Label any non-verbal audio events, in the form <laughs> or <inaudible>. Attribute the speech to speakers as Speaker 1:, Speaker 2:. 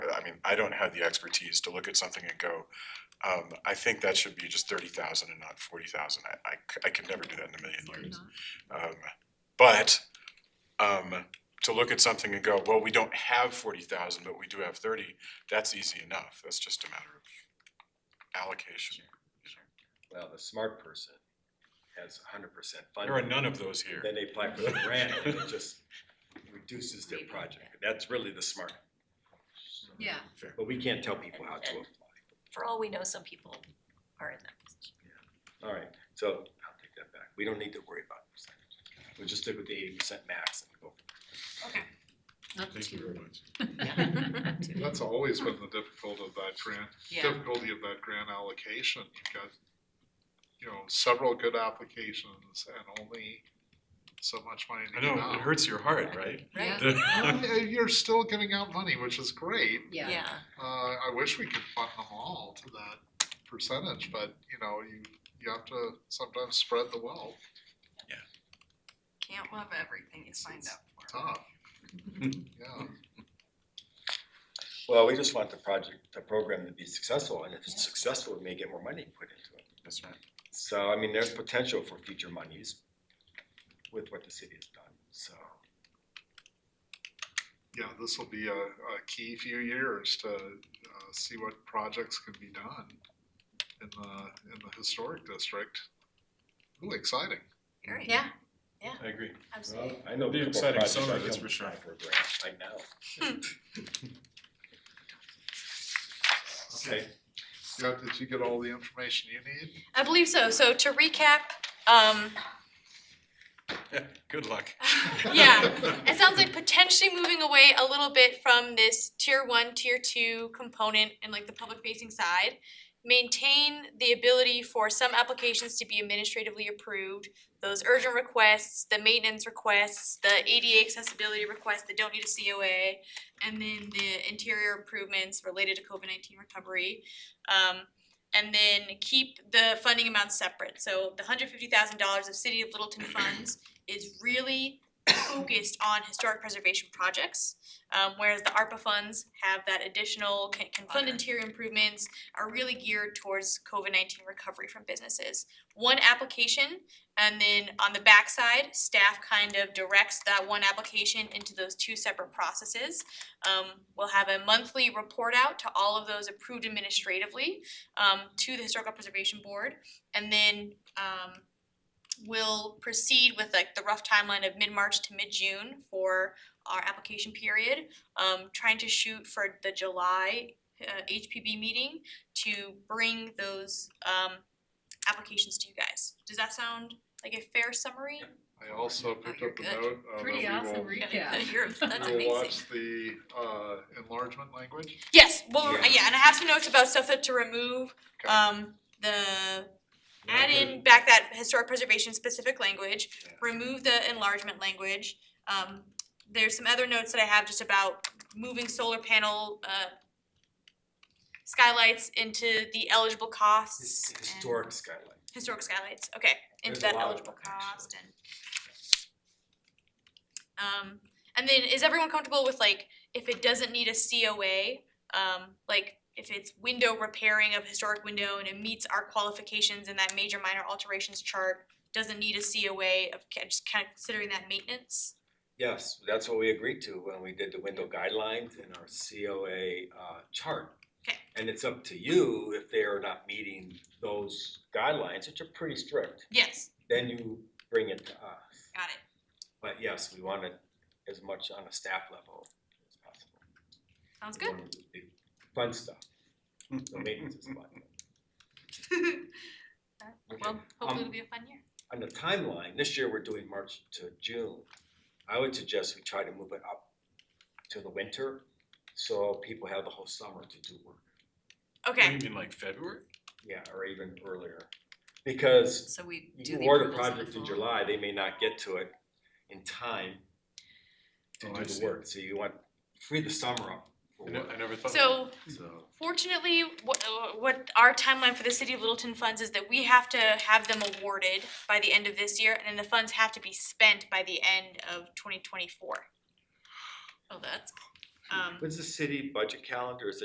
Speaker 1: mean, I don't have the expertise to look at something and go, um, I think that should be just thirty thousand and not forty thousand. I, I c- I could never do that in a million years. Um, but, um, to look at something and go, well, we don't have forty thousand, but we do have thirty, that's easy enough. That's just a matter of allocation.
Speaker 2: Well, the smart person has hundred percent funding.
Speaker 1: There are none of those here.
Speaker 2: Then they apply for the grant and it just reduces their project. That's really the smart.
Speaker 3: Yeah,
Speaker 2: But we can't tell people how to apply.
Speaker 4: For all we know, some people are in that position.
Speaker 2: All right, so I'll take that back. We don't need to worry about percentage. We'll just stick with the eighty percent max and go.
Speaker 3: okay. Not
Speaker 1: Thank you
Speaker 3: too,
Speaker 1: very much.
Speaker 5: <laughs> That's always been the difficulty of that grant,
Speaker 3: yeah,
Speaker 5: difficulty of that grant allocation. You've got, you know, several good applications and only so much money
Speaker 1: I
Speaker 5: to
Speaker 1: know,
Speaker 5: give
Speaker 1: it
Speaker 5: out.
Speaker 1: hurts your heart, right? <laughs>
Speaker 3: right,
Speaker 1: The-
Speaker 5: Uh, You're still giving out money, which is great.
Speaker 3: yeah,
Speaker 5: Uh, I wish we could fund them all to that percentage, but, you know, you, you have to sometimes spread the wealth.
Speaker 6: Can't love everything you signed up for.
Speaker 5: Tough.
Speaker 1: <laughs>
Speaker 5: Yeah.
Speaker 2: Well, we just want the project, the program to be successful, and if it's successful, we may get more money put into it.
Speaker 1: That's right.
Speaker 2: So, I mean, there's potential for future monies with what the city has done, so.
Speaker 5: Yeah, this will be a, a key few years to uh, see what projects can be done in the, in the historic district. Really exciting.
Speaker 4: Very,
Speaker 3: yeah,
Speaker 1: I agree.
Speaker 4: absolutely.
Speaker 2: I know.
Speaker 1: Be
Speaker 2: a couple
Speaker 1: exciting
Speaker 2: projects
Speaker 1: summer,
Speaker 2: I
Speaker 1: that's
Speaker 2: can
Speaker 1: for sure.
Speaker 2: apply For a grant right now. Okay,
Speaker 5: Yeah, did you get all the information you <laughs> need?
Speaker 7: I believe so. So to recap, um,
Speaker 1: <laughs> Good luck.
Speaker 7: yeah, it sounds like potentially moving away a little bit from this tier one, tier two component and like the public facing side. Maintain the ability for some applications to be administratively approved, those urgent requests, the maintenance requests, the ADA accessibility requests that don't need a COA, and then the interior improvements related to COVID nineteen recovery. Um, and then keep the funding amounts separate. So the hundred fifty thousand dollars of City of Littleton funds is really focused on historic preservation projects. Um, whereas the ARPA funds have that additional, can, can fund
Speaker 4: Okay.
Speaker 7: interior improvements, are really geared towards COVID nineteen recovery from businesses. One application, and then on the backside, staff kind of directs that one application into those two separate processes. Um, we'll have a monthly report out to all of those approved administratively, um, to the Historical Preservation Board. And then, um, will proceed with like the rough timeline of mid-March to mid-June for our application period. Um, trying to shoot for the July uh, HPB meeting to bring those um applications to you guys. Does that sound like a fair summary?
Speaker 5: I also picked
Speaker 4: you're
Speaker 5: up the
Speaker 4: good.
Speaker 5: note. uh, that
Speaker 3: pretty
Speaker 5: we
Speaker 3: awesome
Speaker 5: will-
Speaker 3: recap.
Speaker 4: You're- that's
Speaker 5: We will
Speaker 4: amazing.
Speaker 5: watch the uh, enlargement language.
Speaker 7: Yes, well,
Speaker 2: Yeah.
Speaker 7: yeah, and I have some notes about stuff that to remove,
Speaker 5: Okay.
Speaker 7: um the add in back that historic preservation specific language,
Speaker 2: Yeah.
Speaker 7: remove the enlargement language. Um, there's some other notes that I have just about moving solar panel, uh, skylights into the eligible costs.
Speaker 2: his-
Speaker 7: and-
Speaker 2: historic skyline.
Speaker 7: Historic skylights, okay, into
Speaker 2: There's a
Speaker 7: that
Speaker 2: lot of
Speaker 7: eligible
Speaker 2: them, actually.
Speaker 7: cost and. Um, and then is everyone comfortable with like, if it doesn't need a COA, um, like if it's window repairing of historic window and it meets our qualifications in that major minor alterations chart, doesn't need a COA of, ca- just kind of considering that maintenance?
Speaker 2: Yes, that's what we agreed to when we did the window guidelines and our COA uh, chart.
Speaker 7: Okay.
Speaker 2: And it's up to you if they are not meeting those guidelines, which are pretty strict,
Speaker 7: Yes,
Speaker 2: then you bring it to us.
Speaker 7: got it.
Speaker 2: But yes, we want it as much on a staff level as possible.
Speaker 7: Sounds
Speaker 2: We
Speaker 7: good.
Speaker 2: want it to be Fun stuff, the maintenance is
Speaker 7: <laughs>
Speaker 2: fun.
Speaker 7: Well,
Speaker 2: Um,
Speaker 7: hopefully it'll be a fun year.
Speaker 2: On the timeline, this year we're doing March to June. I would suggest we try to move it up to the winter, so people have the whole summer to do work.
Speaker 1: What do
Speaker 7: Okay,
Speaker 1: you mean, like February?
Speaker 2: Yeah, or even earlier, because
Speaker 4: So we do
Speaker 2: you
Speaker 4: the
Speaker 2: award a
Speaker 4: approvals
Speaker 2: project in
Speaker 4: fall.
Speaker 2: July, they may not get to it in time to
Speaker 1: Oh, I
Speaker 2: do the
Speaker 1: see.
Speaker 2: work, so you want, free the summer up for
Speaker 1: I ne-
Speaker 2: work,
Speaker 1: I never thought.
Speaker 7: so
Speaker 2: so.
Speaker 7: Fortunately, what, what our timeline for the city of Littleton funds is that we have to have them awarded by the end of this year, and then the funds have to be spent by the end of twenty twenty-four.
Speaker 4: Oh, that's
Speaker 7: Um,
Speaker 2: What's the city budget calendar, is